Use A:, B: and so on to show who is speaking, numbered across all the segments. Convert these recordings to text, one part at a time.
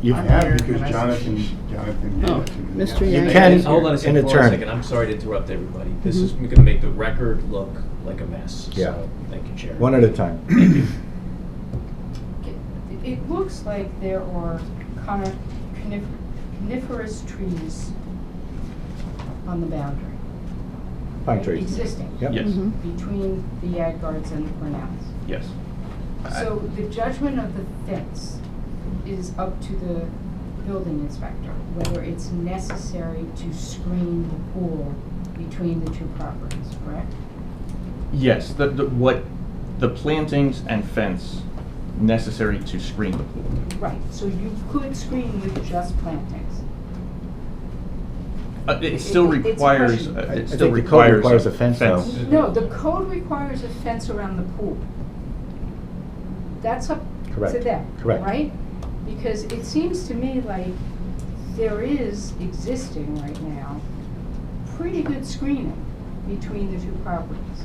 A: You
B: I'm
A: have,
B: here,
A: because
B: can I-
A: Jonathan, Jonathan gave it to me.
C: Mr.
A: You
C: Oh, Yang.
A: can,
C: Yes,
D: Hold on a second,
A: an
D: hold on a
A: attorney.
D: second. I'm sorry to interrupt everybody. This
C: Mhm.
D: is going to make the record look like a mess.
E: Mm-hmm. Yeah.
D: So, thank you, Chair.
E: One at a time.
B: It- It looks like there are conif- conif- coniferous trees on the boundary.
E: Pine
B: right,
E: trees.
B: Existing.
E: Yep.
D: Yes.
C: Mhm.
B: Between the yard guards and the Brunels.
D: Yes.
B: So the judgment of the fence is up to the building inspector, whether it's necessary to screen the pool between the two properties, correct?
F: Yes, the, the, what, the plantings and fence necessary to screen the pool.
B: Right, so you could screen with just plantings.
F: Uh,
B: It-
F: it still
B: it- it's
F: requires,
B: question.
F: uh,
E: I- I
F: it still
E: think the code
F: requires.
E: requires a fence, though.
B: No, the code requires a fence around the pool. That's up to
E: Correct.
B: them,
E: Correct.
B: right? Because it seems to me like there is existing right now, pretty good screening between the two properties.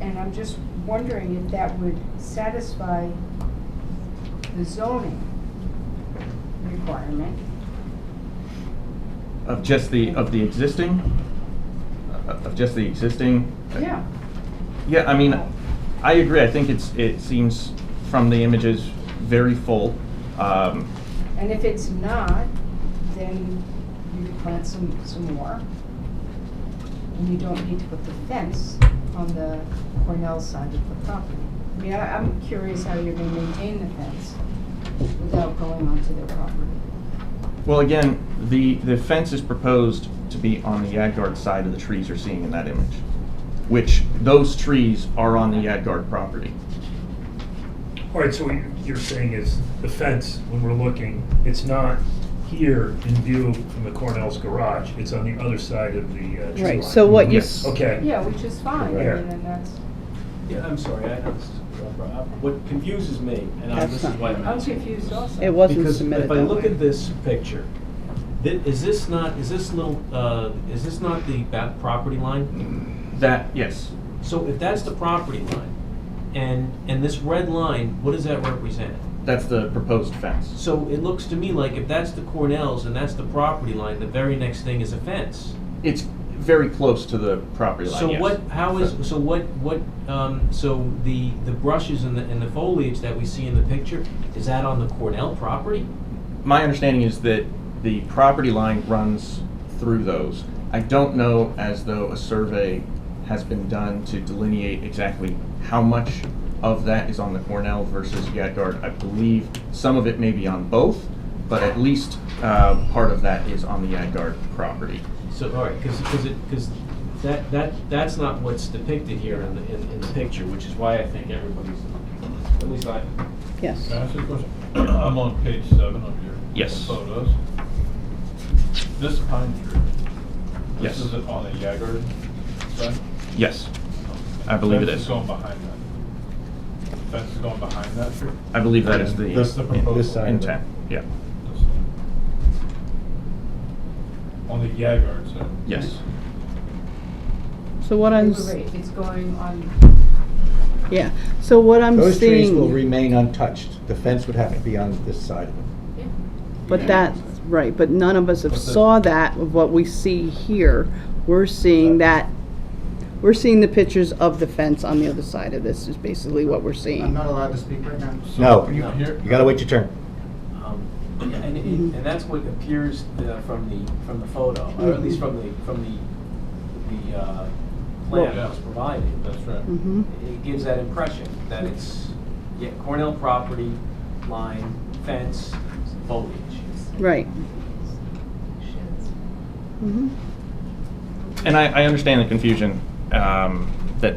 B: And I'm just wondering if that would satisfy the zoning requirement.
F: Of just the, of the existing, Uh, of just the existing.
B: Yeah,
F: Yeah, I mean, I agree. I think it's, it seems from the images very full. Um,
B: and if it's not, then you could plant some, some more. And you don't need to put the fence on the Cornell side of the property. I mean, I- I'm curious how you're gonna maintain the fence without going onto their property.
F: Well, again, the, the fence is proposed to be on the Yadgard side of the trees you're seeing in that image, which those trees are on the Yadgard property.
G: All right, so what you're- you're saying is the fence, when we're looking, it's not here in view from the Cornell's garage. It's on the other side of the uh, tree line.
C: Right, so what you,
F: Yes.
C: s-
G: Okay.
B: Yeah, which is fine, I
G: Right.
B: mean, and that's,
D: Yeah, I'm sorry. I, I was- what confuses me, and I-
C: That's
D: this is
C: not-
D: why I'm
B: I'm
D: asking.
B: confused also.
C: it wasn't
D: Because
C: submitted
D: if I
C: that
D: look
C: way.
D: at this picture, thi- is this not, is this little, uh, is this not the back property line?
F: That, yes.
D: So if that's the property line, and, and this red line, what does that represent?
F: That's the proposed fence.
D: So it looks to me like if that's the Cornells and that's the property line, the very next thing is a fence.
F: It's very close to the property line,
D: So
F: yes.
D: what, how is, so what, what, um, so the, the brushes and the, and the foliage that we see in the picture, is that on the Cornell property?
F: My understanding is that the property line runs through those. I don't know as though a survey has been done to delineate exactly how much of that is on the Cornell versus Yadgard. I believe some of it may be on both, but at least uh, part of that is on the Yadgard property.
D: So, all right, because, because it, because that, that, that's not what's depicted here in the, in, in the picture, which is why I think everybody's, at least I,
C: Yes.
H: Can I ask you a question? I'm on page seven of your.
F: Yes.
H: Photos. This pine tree.
F: Yes.
H: This is on the Yagard side?
F: Yes, I believe it
H: Fence
F: is.
H: going behind that. Fence is going behind that tree?
F: I believe that is
H: That's the
F: the
H: proposal.
E: this side.
F: intent, yeah,
H: This one. On the Yagard side?
F: yes.
C: So what I'm, s-
B: Right, It's going on,
C: yeah, so what I'm
E: Those trees will
C: seeing,
E: remain untouched. The fence would have to be on this side of it.
B: yeah,
C: but that's, right, but none of us have
H: But the-
C: saw that, of what we see here. We're seeing that, we're seeing the pictures of the fence on the other side of this is basically what we're
I: I'm
C: seeing.
I: not allowed to speak right now.
E: No,
H: Can you hear?
E: you gotta wait your turn.
J: Um, And, and it- and that's what appears uh, from the, from the photo, or at least from the, from the, the uh, plan that was provided.
H: That's right.
C: Mhm.
J: It gives that impression that it's, yeah, Cornell property, line, fence, foliage.
C: Right.
B: sheds.
C: Mhm.
F: And I, I understand the confusion um, that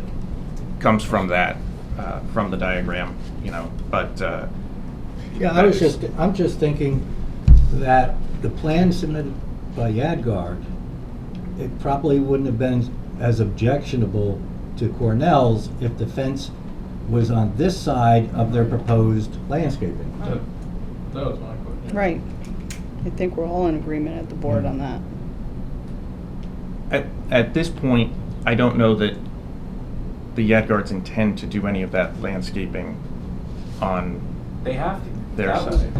F: comes from that, uh, from the diagram, you know, but uh,
E: Yeah, I was just, I'm just thinking that the plan submitted by Yadgard, it probably wouldn't have been as objectionable to Cornell's if the fence was on this side of their proposed landscaping.
H: That that was my question.
C: Right. I think we're all in agreement at the board on that.
F: at, at this point, I don't know that the Yadgards intend to do any of that landscaping on
J: They have to.
F: Their
J: That was-
F: side.